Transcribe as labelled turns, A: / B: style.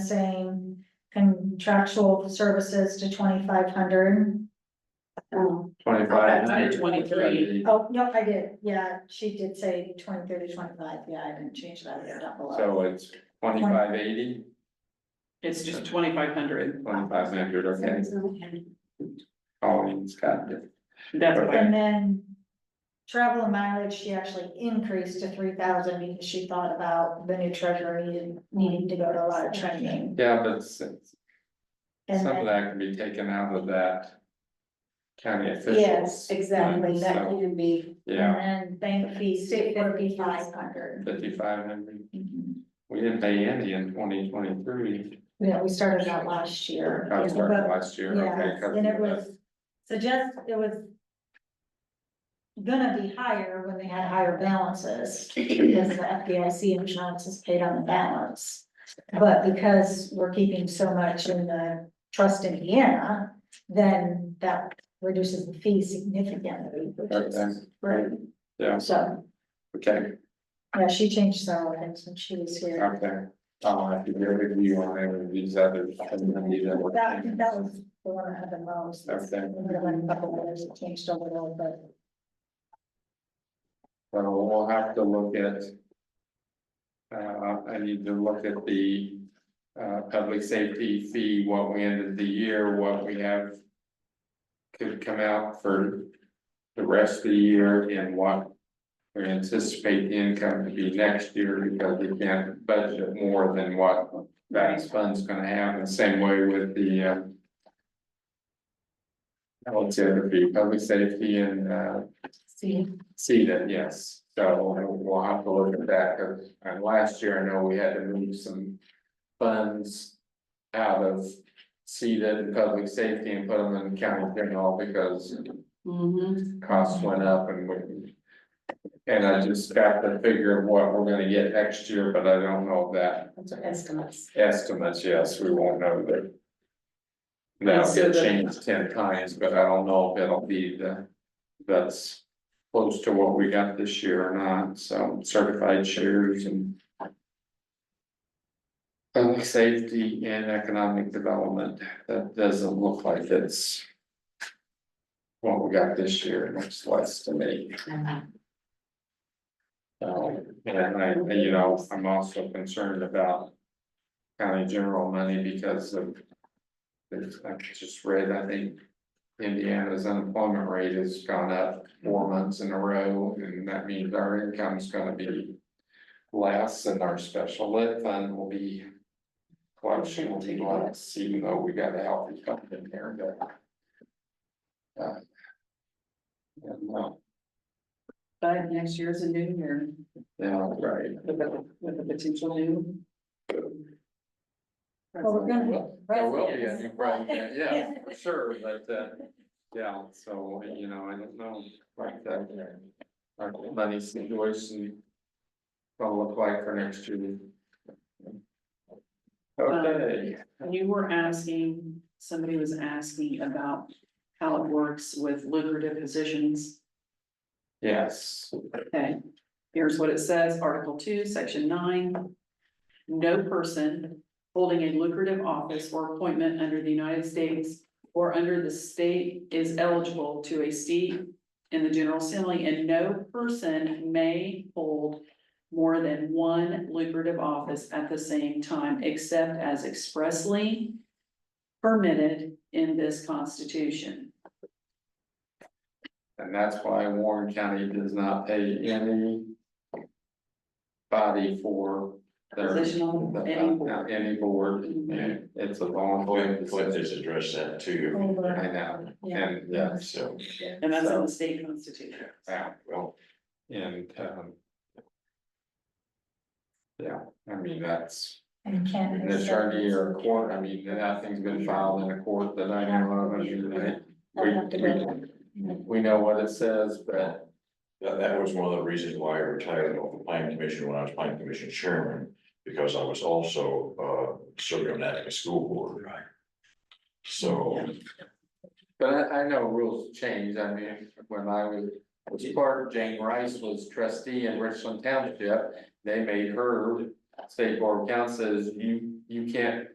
A: saying contractual services to twenty-five hundred.
B: Oh,
C: Twenty-five.
B: I did 23.
A: Oh, no, I did, yeah, she did say twenty-three to twenty-five, yeah, I didn't change that, it's down below.
C: So it's twenty-five eighty,
B: it's just twenty-five hundred,
C: twenty-five hundred, okay, Colleen's got it.
B: that's what I,
A: And then travel and mileage, she actually increased to three thousand because she thought about the new treasurer needed, needing to go to a lot of training.
C: Yeah, but since
A: And
C: some of
A: then,
C: that can be taken out of that. County
D: Yes,
C: officials.
D: exactly, that
C: So,
D: can be,
C: Yeah,
A: and then bank fees, would
D: State bank
A: be
D: fees.
A: five hundred.
C: fifty-five hundred, we didn't pay any in twenty twenty-three,
A: Yeah, we started that last year. but-
C: last year, okay.
A: Yeah,
C: covered
A: and it
C: that.
A: was, so just, it was. Gonna be higher when they had higher balances, because the FDIC insurance is paid on the balance. But because we're keeping so much in the trust Indiana, then that reduces the fee significantly, which is,
C: Okay.
A: right,
C: Yeah,
A: so,
C: okay,
A: yeah, she changed several things when she was here.
C: okay, I'll have to get with you on any of these others. I didn't need that one.
A: That, that was the one I had the most, there
C: Okay,
A: were a couple others that changed a little, but.
C: so we'll have to look at. Uh, I need to look at the, uh, public safety fee, what we ended the year, what we have. Could come out for the rest of the year and what. We anticipate the income to be next year because we can't budget more than what that fund's gonna have, and same way with the, uh. What's the other fee, public safety and, uh.
D: see,
C: See that, yes, so we'll have to look at that, 'cause, uh, last year, I know we had to move some funds. Out of CEDA and public safety and put them in county general because
D: mhm,
C: costs went up and we. And I just got the figure of what we're gonna get next year, but I don't know that
D: those are estimates.
C: estimates, yes, we won't know that. That'll
B: So
C: get
B: the-
C: changed ten times, but I don't know if it'll be the, that's close to what we got this year or not, so certified shares and. Public safety and economic development, that doesn't look like it's. What we got this year, it looks less to me.
B: Uh-huh.
C: So, and I, and, you know, I'm also concerned about. County general money because of. there's- I just read, I think. Indiana's unemployment rate has gone up four months in a row, and that means our income's gonna be. Less and our special lit fund will be. Collection will be less, even though we got a healthy company in there, but. uh, Yeah, no,
B: but next year's a new year,
C: yeah, right.
B: with a, with a potential new.
A: Well, we're gonna-
C: Well, There will be a new president, yeah, for sure, but, uh, yeah, so, you know, I don't know, like, uh, that. Our money situation. Will look like for next year. Okay,
B: You were asking, somebody was asking about how it works with lucrative positions.
C: yes,
B: Okay, here's what it says, Article two, Section nine. No person holding a lucrative office or appointment under the United States or under the state is eligible to a seat in the General Assembly, and no person may hold more than one lucrative office at the same time, except as expressly permitted in this Constitution.
C: and that's why Warren County does not pay any. Body for their. uh,
B: Position on any board.
C: Any board,
B: Mhm.
C: it's a voluntary.
E: Flint, Flint has addressed that too,
C: I
A: Over.
C: know,
A: Yeah.
C: and, yeah,
E: so,
B: And that's in the state constitution.
C: yeah,
E: well,
C: and, um. Yeah, I mean, that's.
A: And can.
C: An attorney or a court, I mean, nothing's been filed in a court that I know of, I mean, they- we, we, we know what it says, but.
E: that, that was one of the reasons why I retired off the planning commission when I was planning commission chairman. Because I was also, uh, serving on that school board. Right. So,
C: But I, I know rules change, I mean, when I was, was clerk, Jane Rice was trustee in Richland Township, they made her. State Board of Council says, you, you can't